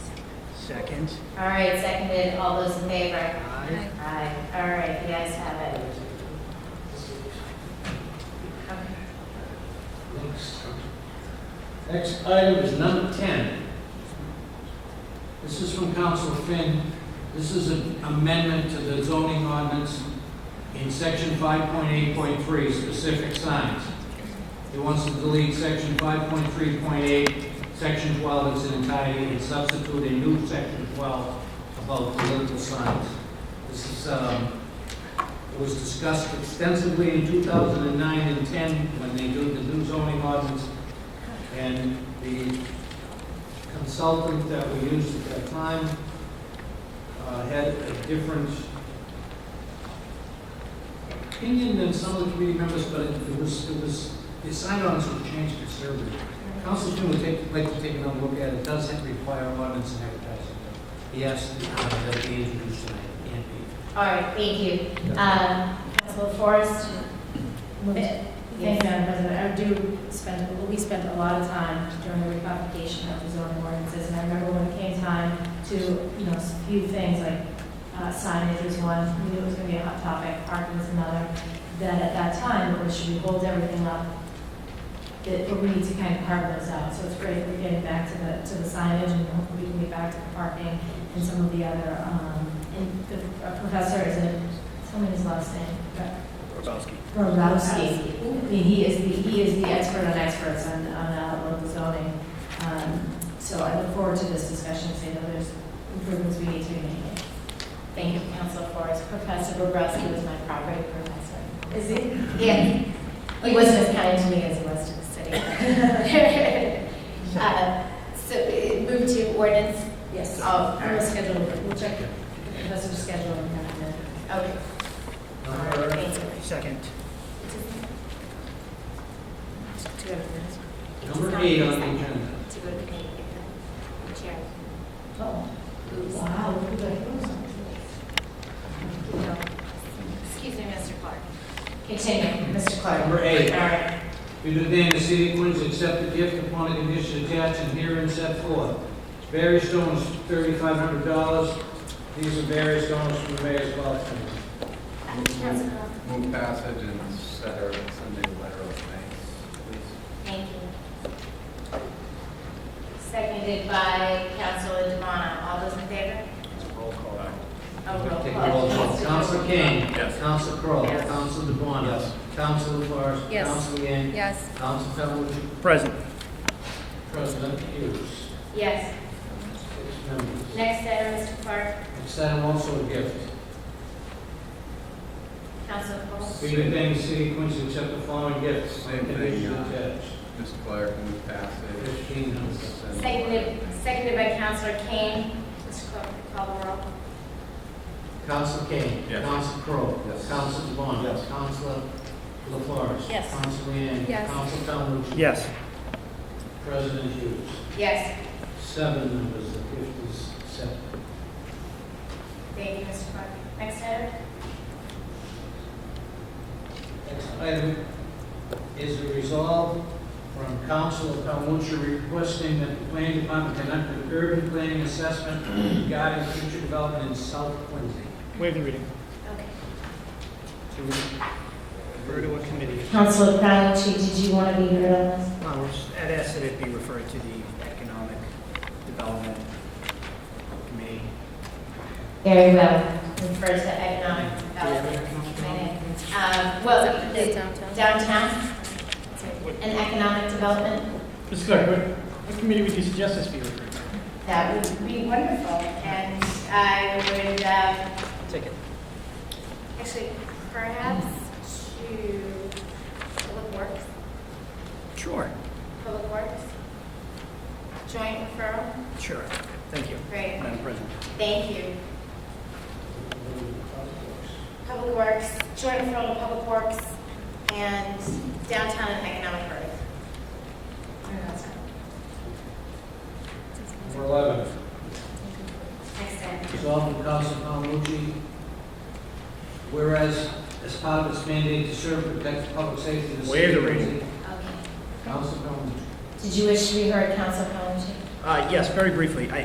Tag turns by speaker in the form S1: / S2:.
S1: Second.
S2: All right, seconded, all those in favor?
S1: Aye.
S2: Aye. All right, the ayes have it. Okay.
S3: Next item is number 10. This is from Council Finn. This is an amendment to the zoning ordinance in section 5.8.3, specific signs. It wants to delete section 5.3.8, section 12 in its entirety, and substitute a new section 12 about political signs. This is, um, it was discussed extensively in 2009 and 10 when they did the new zoning ordinance and the consultant that we used at that time uh, had a different opinion than some of the committee members, but it was, it was, the sign ordinance was changed considerably. Council Jim would take, like to take another look at it, it does require ordinance and advertising. Yes, that be introduced tonight, It can't be.
S2: All right, thank you. Um, Council Forrest?
S4: Thank you, Madam President. I do spend, we spent a lot of time during the recodification of the zoning ordinances, and I remember when it came time to, you know, a few things like uh, signage was one, we knew it was going to be a hot topic, parking was another, that at that time, we should we hold everything up, that we need to kind of carve those out. So it's great that we're getting back to the, to the signage, and hopefully we can get back to the parking and some of the other, um, and the uh, professor is a, tell me his last name, but
S1: Grabowski.
S4: Borowski. I mean, he is the, he is the expert on experts on, on uh, local zoning. Um, So I look forward to this discussion, so I know there's improvements we need to be making.
S2: Thank you, Council Forrest. Professor Bobrowski was my property professor.
S4: Is he?
S2: Yes. He wasn't as kind to me as he was to the city. Uh, So uh, move to ordinance.
S4: Yes.
S2: Oh,
S4: We'll schedule, we'll check the professor's schedule and have him.
S2: Okay. All right, thank you.
S1: Second.
S2: To go to the next one.
S3: Number eight on the agenda.
S2: To go to the meeting, if the chair.
S4: Oh, wow, look at that.
S2: Excuse me, Mr. Clark. Continue, Mr. Clark.
S3: Number eight.
S2: All right.
S3: Be it ordained the city of Queens accept the gift upon the condition attached and herein set forth. Various stones, thirty-five hundred dollars. These are various stones from various golf courses.
S2: Uh,
S5: Move passage and set our Sunday letter of thanks, please.
S2: Thank you. Seconded by Councilor Devon. All those in favor?
S5: Roll call.
S2: Oh, roll
S3: Take
S2: call.
S3: roll call. Counsel King.
S5: Yes.
S3: Counsel Crowe.
S2: Yes.
S3: Counsel DeBona.
S5: Yes.
S3: Counsel LaFarge.
S2: Yes.
S3: Counsel Yang.
S2: Yes.
S3: Counsel Calhoun.
S1: Present.
S3: President Hughes.
S2: Yes.
S3: Six members.
S2: Next item, Mr. Clark,
S3: Next item also a gift.
S2: Council Paul.
S3: Be it ordained the city of Queens accept the following gifts.
S5: Same thing,
S3: Condition
S5: uh,
S3: attached.
S5: Mr. Clark, move passage.
S3: Fifteen hundred.
S5: Send letter.
S2: Seconded, seconded by Councilor Kane. Mr. Clark, call the roll.
S3: Counsel Kane.
S5: Yes.
S3: Counsel Crowe.
S5: Yes.
S3: Counsel DeBon.
S5: Yes.
S3: Counsel LaFarge.
S2: Yes.
S3: Counsel Leeang.
S2: Yes.
S3: Counsel Calhoun.
S1: Yes.
S3: President Hughes.
S2: Yes.
S3: Seven members, the gift is accepted.
S2: Thank you, Mr. Clark. Next item?
S3: Next item is a resolve from Council of Calhoun requesting that the planning department conduct an urban planning assessment regarding future development in South Quincy.
S1: Waive the reading.
S2: Okay.
S1: To refer to a committee.
S4: Councilor Palachi, did you want to be heard on this?
S1: Uh, we're just- I'd ask that it be referred to the Economic Development Committee.
S4: Very well.
S2: Refer to economic development committee. Um, well, the downtown and economic development,
S1: Mr. Clark, what committee would you suggest this be referred to?
S2: that would be wonderful. And I would, um,
S1: Take it.
S2: Actually, perhaps to Public Works,
S1: Sure.
S2: Public Works, joint referral,
S1: Sure. Thank you.
S2: great,
S1: Madam President.
S2: thank you. Public Works, joint referral to Public Works, and downtown and economic growth. I don't know, it's
S3: Number 11,
S2: not- Next item.
S3: Resolved from Council Palmucci, whereas as part of its mandate to serve and protect public safety in the city.
S1: Waive the
S3: of
S1: reading.
S3: Quincy,
S2: Okay.
S3: Council Calhoun
S4: Did you wish to be heard, Council Palachi?
S1: Uh, yes, very briefly, I,